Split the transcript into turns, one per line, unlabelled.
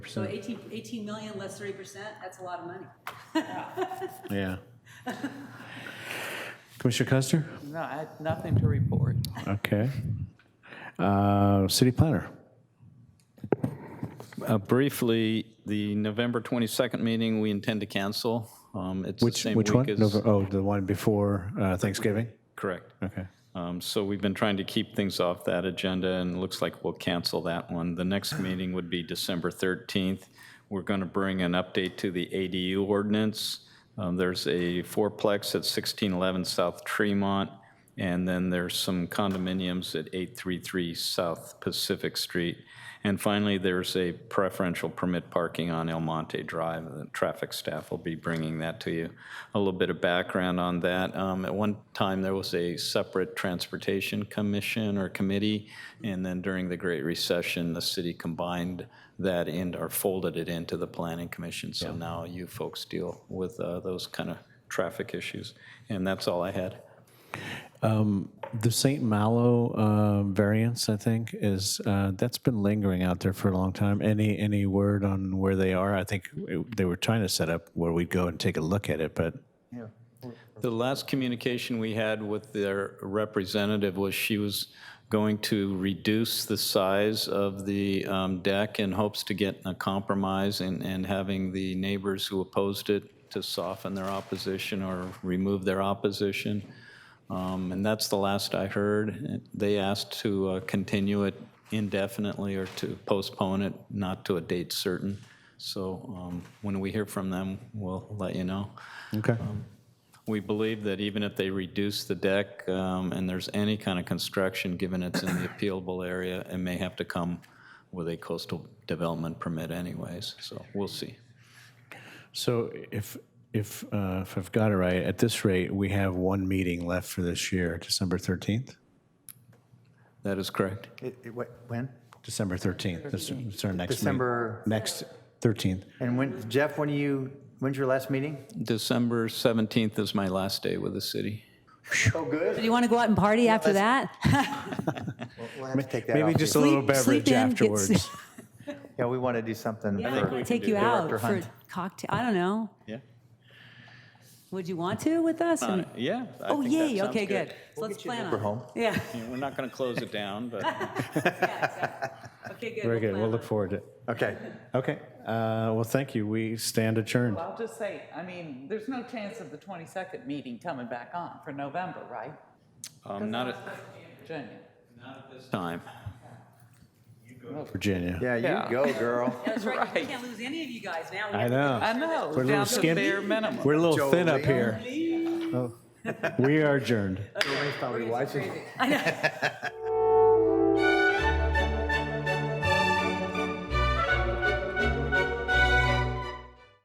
So 18, 18 million less 30%, that's a lot of money.
Yeah. Commissioner Custer?
No, I had nothing to report.
Okay. Uh, City planner?
Uh, Briefly, the November 22nd meeting, we intend to cancel. Um, It's the
Which,
same
which one?
week as.
Nov- Oh, the one before uh, Thanksgiving?
Correct.
Okay.
Um, So we've been trying to keep things off that agenda, and it looks like we'll cancel that one. The next meeting would be December 13th. We're going to bring an update to the ADU ordinance. Um, There's a fourplex at 1611 South Tremont, and then there's some condominiums at 833 South Pacific Street. And finally, there's a preferential permit parking on El Monte Drive. The traffic staff will be bringing that to you. A little bit of background on that. Um, At one time, there was a separate transportation commission or committee, and then during the Great Recession, the city combined that in or folded it into the planning commission. So now you folks deal with uh, those kind of traffic issues. And that's all I had.
The St. Malo uh, variance, I think, is, uh, that's been lingering out there for a long time. Any, any word on where they are? I think it- they were trying to set up where we'd go and take a look at it, but
The last communication we had with their representative was she was going to reduce the size of the um, deck in hopes to get a compromise and, and having the neighbors who opposed it to soften their opposition or remove their opposition. Um, And that's the last I heard. They asked to uh, continue it indefinitely or to postpone it, not to a date certain. So um, when we hear from them, we'll let you know.
Okay.
We believe that even if they reduce the deck um, and there's any kind of construction, given it's in the appealable area, it may have to come with a coastal development permit anyways, so we'll see.
So if, if, uh, if I've got it right, at this rate, we have one meeting left for this year, December 13th?
That is correct.
It- it- what- When?
December 13th. That's that's our next meeting.
December-
Next, 13th.
And when, Jeff, when do you, when's your last meeting?
December 17th is my last day with the city.
Oh,
Do
good.
you want to go out and party after that?
We'll have to take that
Maybe
off.
just a little
Sleep- sleep in,
beverage
get
afterwards.
s-
Yeah, we want to do something
Yeah, I
for
could take you out
Director
for
Hunt.
cocktail, I don't know.
Yeah?
Would you want to with us? And-
Yeah. Uh, I
Oh,
think that
yay,
sounds
okay, good. So Let's plan
We're
on it.
home.
Yeah.
Yeah, We're not going to close it down, but
Okay, good.
Very good.
plan
We'll
on
look
it.
forward to it.
Okay.
Okay. Uh, well, thank you. We stand adjourned.
Well, I'll just say, I mean, there's no chance of the 22nd meeting coming back on for November, right?
um, not at
Virginia.
this time.
Virginia.
Yeah,
Yeah.
you go, girl.
That's right. We
Right.
can't lose any of you guys now. We
I
have to-
know.
I know,
We're a little
down to
skinny.
bare minimum.
We're a little thin up
Jolene.
here. Oh. We are adjourned.
Jolene's probably watching.